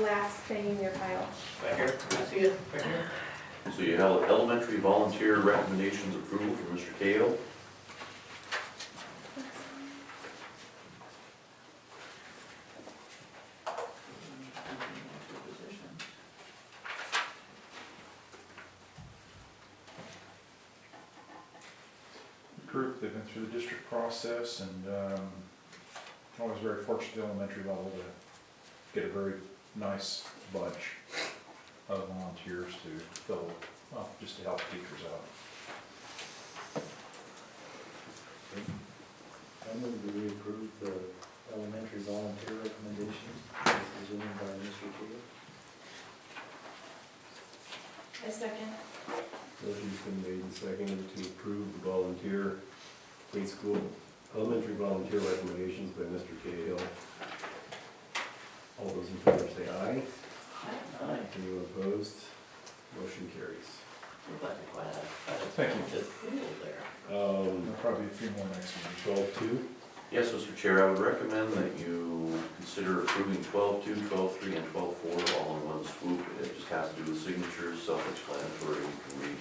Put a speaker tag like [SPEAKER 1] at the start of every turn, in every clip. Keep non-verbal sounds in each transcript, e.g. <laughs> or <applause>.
[SPEAKER 1] last thing in your file.
[SPEAKER 2] Right here, can I see it? Right here?
[SPEAKER 3] So you have elementary volunteer recommendations approval from Mr. Cato.
[SPEAKER 4] group, they've been through the district process, and um, I was very fortunate at the elementary level to get a very nice bunch of volunteers to fill, well, just to help teachers out.
[SPEAKER 5] I move that we approve the elementary volunteer recommendations as presented by Mr. Taylor.
[SPEAKER 1] A second.
[SPEAKER 6] Motion's been made and seconded to approve the volunteer, grade school, elementary volunteer recommendations by Mr. Cahill. All those in favor say aye.
[SPEAKER 2] Aye.
[SPEAKER 6] Anyone opposed? Motion carries.
[SPEAKER 2] Looks like quite a- quite a-
[SPEAKER 4] Thank you.
[SPEAKER 2] Just cool there.
[SPEAKER 4] There'll
[SPEAKER 6] Um,
[SPEAKER 4] probably be a few more next week.
[SPEAKER 6] twelve two,
[SPEAKER 3] Yes, Mr. Chair, I would recommend that you consider approving 12-2, 12-3, and 12-4 all in one swoop. It just has to do with signatures, self-explanatory, you can read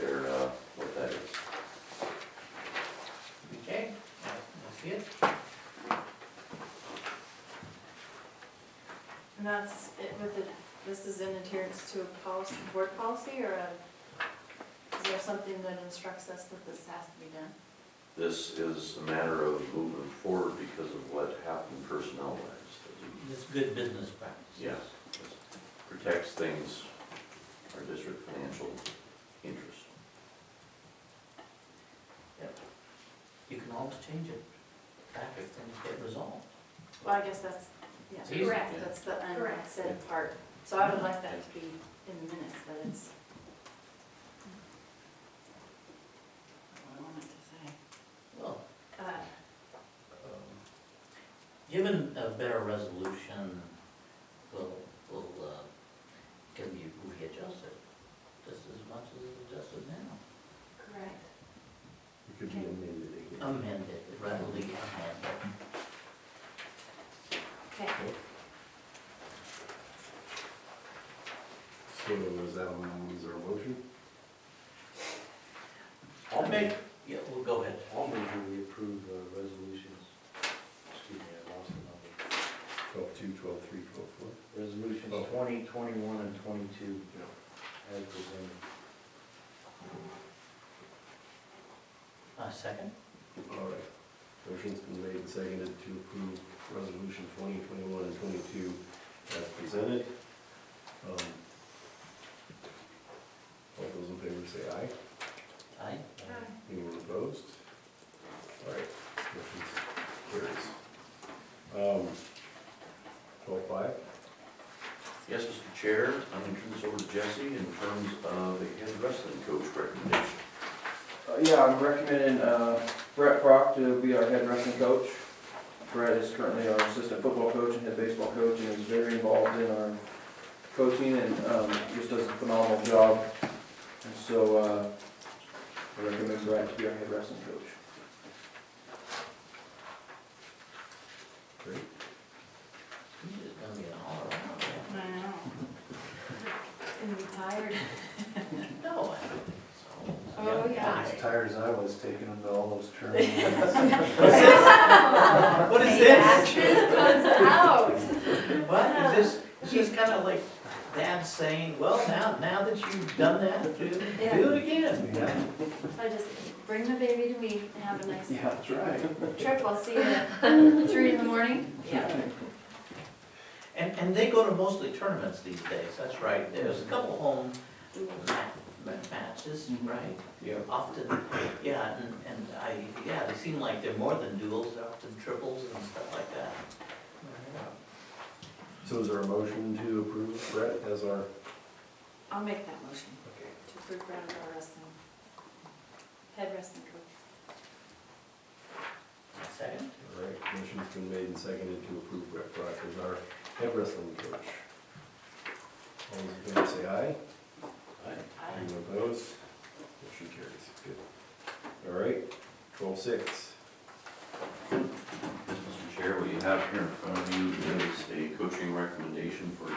[SPEAKER 3] there uh, what that is.
[SPEAKER 2] Okay, I I see it.
[SPEAKER 7] And that's it with the, this is in adherence to a policy, board policy, or a, is there something that instructs us that this has to be done?
[SPEAKER 3] This is a matter of moving forward because of what happened personnel-wise.
[SPEAKER 2] It's good business practice.
[SPEAKER 3] Yes, this protects things, our district financial interests.
[SPEAKER 2] You can always change it back if things get resolved.
[SPEAKER 7] Well, I guess that's,
[SPEAKER 2] It's
[SPEAKER 7] yeah,
[SPEAKER 2] easy.
[SPEAKER 1] Correct.
[SPEAKER 7] that's the
[SPEAKER 1] Correct.
[SPEAKER 7] unsaid part. So I would like that to be in the minutes, that it's. What do I want to
[SPEAKER 2] Well,
[SPEAKER 7] say? Uh,
[SPEAKER 2] um, Given a better resolution, will, will, uh, can be readjusted just as much as it's adjusted now.
[SPEAKER 7] Correct.
[SPEAKER 6] it could be amended again.
[SPEAKER 2] Amended, readily amended.
[SPEAKER 7] Okay,
[SPEAKER 6] So is that one, is there a motion?
[SPEAKER 2] I'll make. Yeah, we'll go ahead.
[SPEAKER 5] I'll move that we approve the resolutions. Excuse me, I lost the
[SPEAKER 6] Twelve two, twelve three, twelve four?
[SPEAKER 5] number. Resolutions twenty, twenty-one, and twenty-two as presented.
[SPEAKER 2] Uh, second?
[SPEAKER 6] All right. Motion's been made and seconded to approve resolution twenty twenty-one and twenty-two as presented. Um, All those in favor say aye.
[SPEAKER 2] Aye?
[SPEAKER 6] Anyone opposed? All right, motion carries. Um, twelve five,
[SPEAKER 3] Yes, Mr. Chair, I'm going to turn this over to Jesse in terms of the head wrestling coach recommendation.
[SPEAKER 8] Uh, Yeah, I'm recommending uh, Brett Brock to be our head wrestling coach. Brett is currently our assistant football coach and head baseball coach and is very involved in our coaching and um, just does a phenomenal job. And so uh, I recommend Brett to be our head wrestling coach.
[SPEAKER 6] great.
[SPEAKER 2] It's gonna be an all around, yeah.
[SPEAKER 7] I know. Gonna be <laughs> tired.
[SPEAKER 2] No, I don't think so.
[SPEAKER 1] Oh, yeah.
[SPEAKER 5] As tired as I was taking them to all those tournaments.
[SPEAKER 2] What is this?
[SPEAKER 7] comes out.
[SPEAKER 2] What, is this, it's just kind of like dad saying, well, now, now that you've done that, do,
[SPEAKER 7] Yeah.
[SPEAKER 2] do it again, you know?
[SPEAKER 7] I just bring the baby to me and have a nice
[SPEAKER 5] Yeah, that's right.
[SPEAKER 7] trip. I'll see you at three in the morning. Yeah.
[SPEAKER 2] And, and they go to mostly tournaments these days, that's right, there's a couple home ma- ma- matches, right?
[SPEAKER 5] Yeah.
[SPEAKER 2] Often, yeah, and, and I, yeah, they seem like they're more than duels, they're often triples and stuff like that.
[SPEAKER 6] So is there a motion to approve Brett as our,
[SPEAKER 7] I'll make that motion
[SPEAKER 6] okay,
[SPEAKER 7] to approve Brown as our wrestling, head wrestling coach.
[SPEAKER 2] Second?
[SPEAKER 6] All right, motion's been made and seconded to approve Brett Brock as our head wrestling coach. All those in favor say aye. Anyone opposed? Motion carries, good. All right, twelve six.
[SPEAKER 3] Mr. Chair, what you have here in front of you is a coaching recommendation for